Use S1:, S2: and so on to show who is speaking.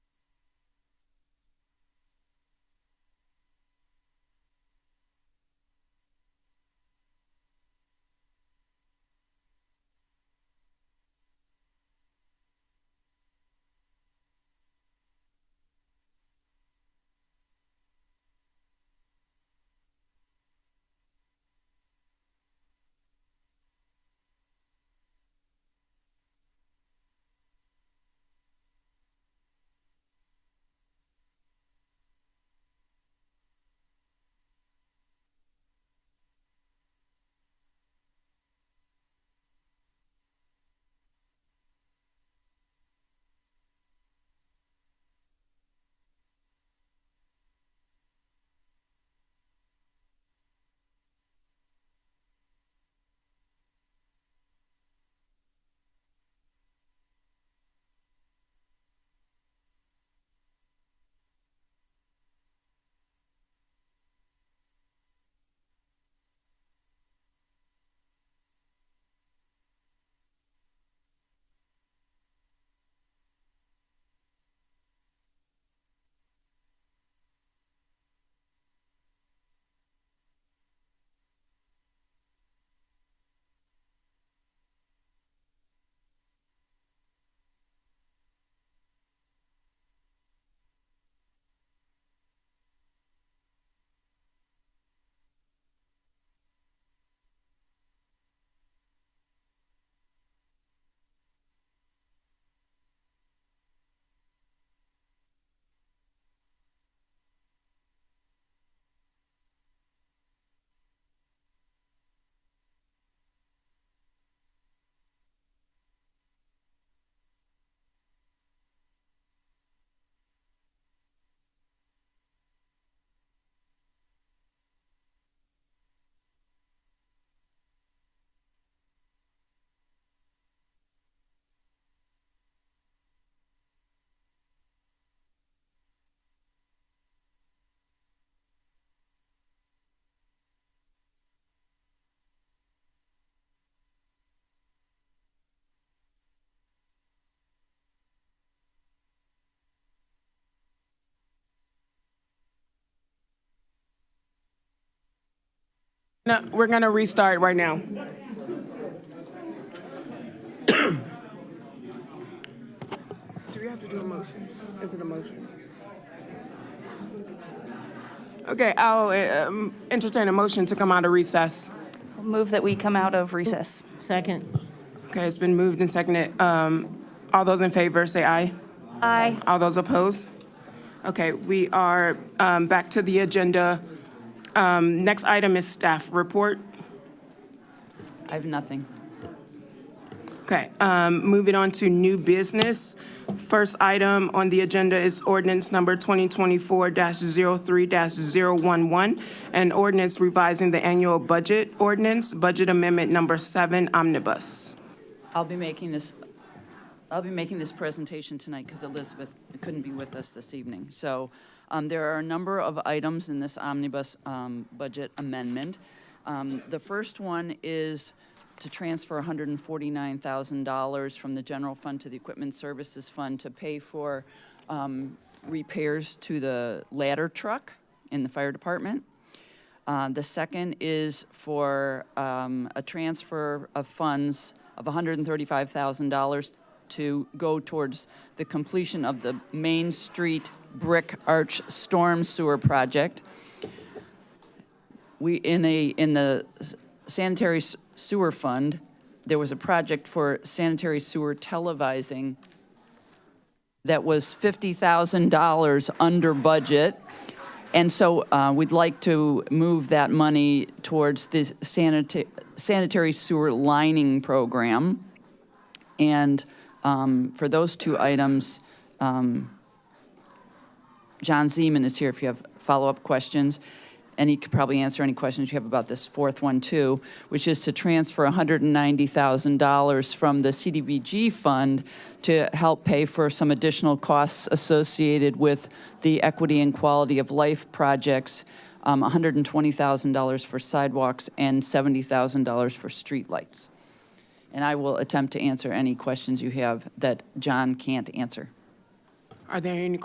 S1: No, we're gonna restart right now. Do we have to do a motion? Is it a motion? Okay, I'll uh, um, entertain a motion to come out of recess.
S2: Move that we come out of recess.
S3: Second.
S1: Okay, it's been moved and seconded. Um, All those in favor, say aye.
S2: Aye.
S1: All those opposed? Okay, we are um, back to the agenda. Um, Next item is staff report.
S4: I have nothing.
S1: Okay, um, moving on to new business. First item on the agenda is ordinance number 2024-03-011, an ordinance revising the annual budget ordinance, budget amendment number seven omnibus.
S4: I'll be making this, I'll be making this presentation tonight because Elizabeth couldn't be with us this evening. So um, there are a number of items in this omnibus um, budget amendment. Um, The first one is to transfer $149,000 from the general fund to the equipment services fund to pay for um, repairs to the ladder truck in the fire department. Uh, The second is for um, a transfer of funds of $135,000 to go towards the completion of the Main Street Brick Arch Storm Sewer Project. We, in a, in the s- sanitary s- sewer fund, there was a project for sanitary sewer televising that was $50,000 under budget. And so uh, we'd like to move that money towards the sanita- sanitary sewer lining program. And um, for those two items, um, John Zeman is here if you have follow-up questions, and he could probably answer any questions you have about this fourth one, too, which is to transfer $190,000 from the CDBG fund to help pay for some additional costs associated with the equity and quality of life projects, um, $120,000 for sidewalks and $70,000 for streetlights. And I will attempt to answer any questions you have that John can't answer.
S1: Are there any